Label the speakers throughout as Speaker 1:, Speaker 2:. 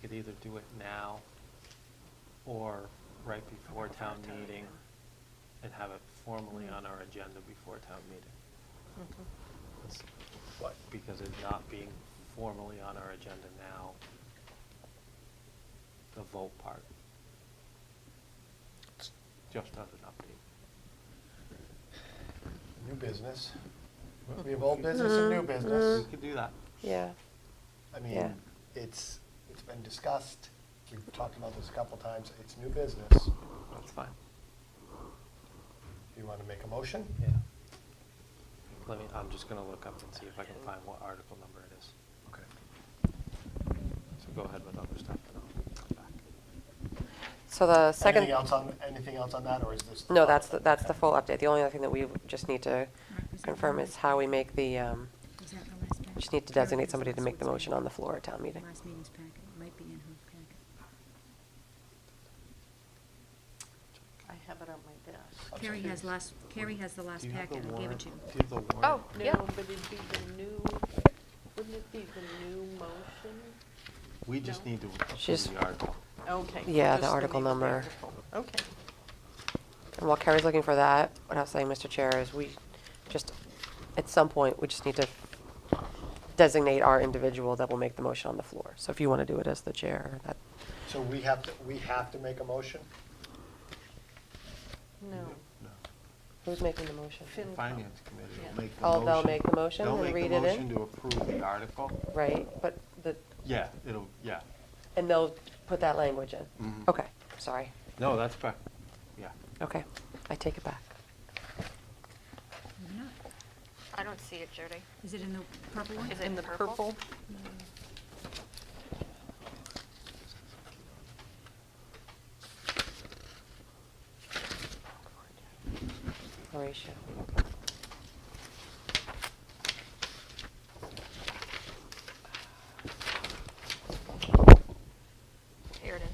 Speaker 1: could either do it now or right before town meeting Mm-hmm. and have it formally on our agenda before town meeting.
Speaker 2: Mm-hmm.
Speaker 1: That's- But because it's not being formally on our agenda now, the vote part. It's Just as an update.
Speaker 3: New business. We have old business and new business.
Speaker 1: We could do that.
Speaker 2: Yeah,
Speaker 3: I
Speaker 2: Mm-hmm. Yeah.
Speaker 3: mean, it's, it's been discussed. We've talked about this a couple times. It's new business.
Speaker 1: That's fine.
Speaker 3: You want to make a motion?
Speaker 1: Yeah. Let me, I'm just gonna look up and see if I can find what article number it is.
Speaker 3: Okay.
Speaker 1: So go ahead with other stuff and I'll come back.
Speaker 2: so the second,
Speaker 3: Anything else on, anything else on that, or is this?
Speaker 2: no, that's, the that's the full update. The only other thing that we would just need to
Speaker 4: Mark, was that
Speaker 2: confirm
Speaker 4: the-
Speaker 2: is how we make the, um,
Speaker 4: was that the last packet?
Speaker 2: just need to
Speaker 4: Karen,
Speaker 2: designate
Speaker 4: was
Speaker 2: somebody
Speaker 4: that
Speaker 2: to make the
Speaker 4: what's
Speaker 2: motion
Speaker 4: in
Speaker 2: on the floor at town meeting.
Speaker 4: Last meeting's packet, It might be in her packet.
Speaker 5: I have it on my desk.
Speaker 3: Okay.
Speaker 4: Carrie has last, Carrie has the last
Speaker 1: Do you have the
Speaker 4: packet, I gave it
Speaker 1: warrant-
Speaker 4: to you.
Speaker 1: Do you have the warrant?
Speaker 5: Oh,
Speaker 2: Yeah.
Speaker 5: no, but it'd be the new, wouldn't it be the new motion?
Speaker 1: We just
Speaker 5: No.
Speaker 1: need to approve
Speaker 2: She's-
Speaker 1: the article.
Speaker 5: Okay.
Speaker 2: Yeah, the
Speaker 5: just
Speaker 2: article
Speaker 5: new
Speaker 2: number.
Speaker 5: article. Okay.
Speaker 2: And while Carrie's looking for that, what I was saying, Mr. Chair, is we just, at some point, we just need to designate our individual that will make the motion on the floor. So if you want to do it as the chair, that,
Speaker 3: So we have to, we have to make a motion?
Speaker 5: No.
Speaker 1: No.
Speaker 2: who's making the motion?
Speaker 1: The
Speaker 5: Fin-
Speaker 1: Finance committee
Speaker 5: Yeah.
Speaker 1: will make the
Speaker 2: Oh,
Speaker 1: motion.
Speaker 2: they'll make the motion
Speaker 1: They'll
Speaker 2: and
Speaker 1: make the
Speaker 2: read it in?
Speaker 1: motion to approve the article.
Speaker 2: Right, but the,
Speaker 1: Yeah, it'll, yeah.
Speaker 2: and they'll put that language in?
Speaker 1: Mhm.
Speaker 2: Okay, sorry.
Speaker 1: No, that's fine. Yeah.
Speaker 2: Okay, I take it back.
Speaker 4: Maybe not.
Speaker 6: I don't see it, Jody.
Speaker 4: Is it in the purple one?
Speaker 6: Is it in the purple?
Speaker 2: Horatio.
Speaker 6: Here it is.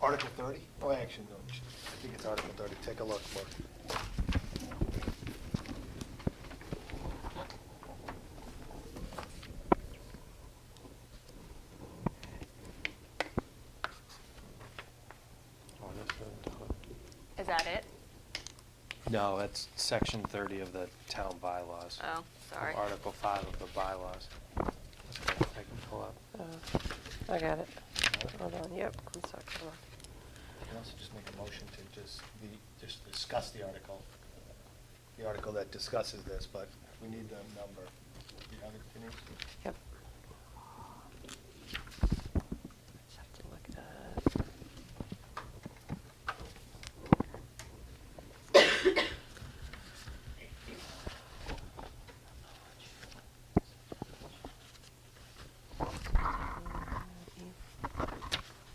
Speaker 3: Article 30? Oh, actually, no, I think it's Article 30. Take a look, Mark.
Speaker 1: Oh, that's good.
Speaker 6: Is that it?
Speaker 1: No, that's section thirty of the town bylaws.
Speaker 6: Oh,
Speaker 1: Of
Speaker 6: sorry.
Speaker 1: Article five of the bylaws. Okay, I can pull up.
Speaker 2: Oh, I got it. Hold on, yep, I'm sorry, hold on.
Speaker 3: You can also just make a motion to just, the, just discuss the article. The article that discusses this, but we need the number. Do you have it, Denise?
Speaker 2: Yep. Just have to look at that.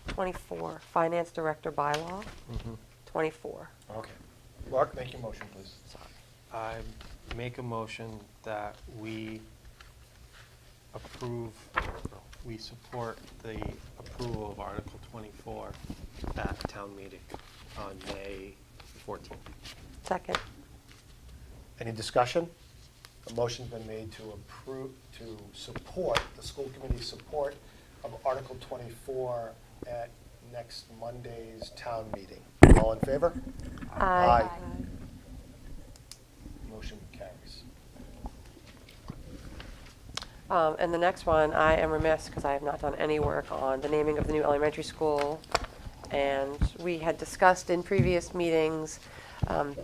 Speaker 2: Twenty-four, Finance Director Bylaw,
Speaker 1: Mm-hmm.
Speaker 2: twenty-four,
Speaker 3: Okay. Mark, make your motion, please.
Speaker 2: sorry.
Speaker 1: I make a motion that we approve, we support the approval of Article 24 at town meeting on May 14th.
Speaker 2: Second,
Speaker 3: Any discussion? A motion's been made to approve, to support, the school committee's support of Article 24 at next Monday's town meeting. All in favor?
Speaker 2: Aye.
Speaker 3: Motion carries.
Speaker 2: Um, And the next one, I am remiss because I have not done any work on the naming of the new elementary school. And we had discussed in previous meetings, um,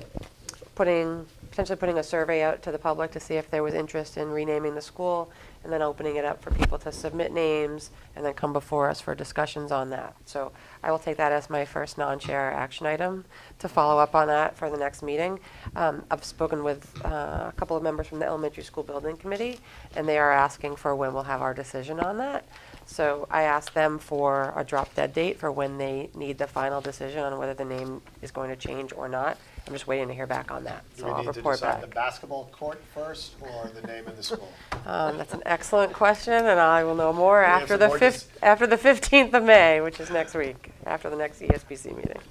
Speaker 2: putting, potentially putting a survey out to the public to see if there was interest in renaming the school and then opening it up for people to submit names and then come before us for discussions on that. So I will take that as my first non-chair action item to follow up on that for the next meeting. Um, I've spoken with uh, a couple of members from the elementary school building committee and they are asking for when we'll have our decision on that. So I asked them for a drop dead date for when they need the final decision on whether the name is going to change or not. I'm just waiting to hear back on that,
Speaker 3: Do
Speaker 2: so
Speaker 3: we
Speaker 2: I'll
Speaker 3: need to
Speaker 2: report
Speaker 3: decide the
Speaker 2: back.
Speaker 3: basketball court first or the name of the school?
Speaker 2: Um, that's an excellent question, and I will know more
Speaker 3: We have
Speaker 2: after
Speaker 3: some
Speaker 2: the
Speaker 3: more
Speaker 2: fifth, after the fifteenth of May, which is next E week, after the next ESPC meeting.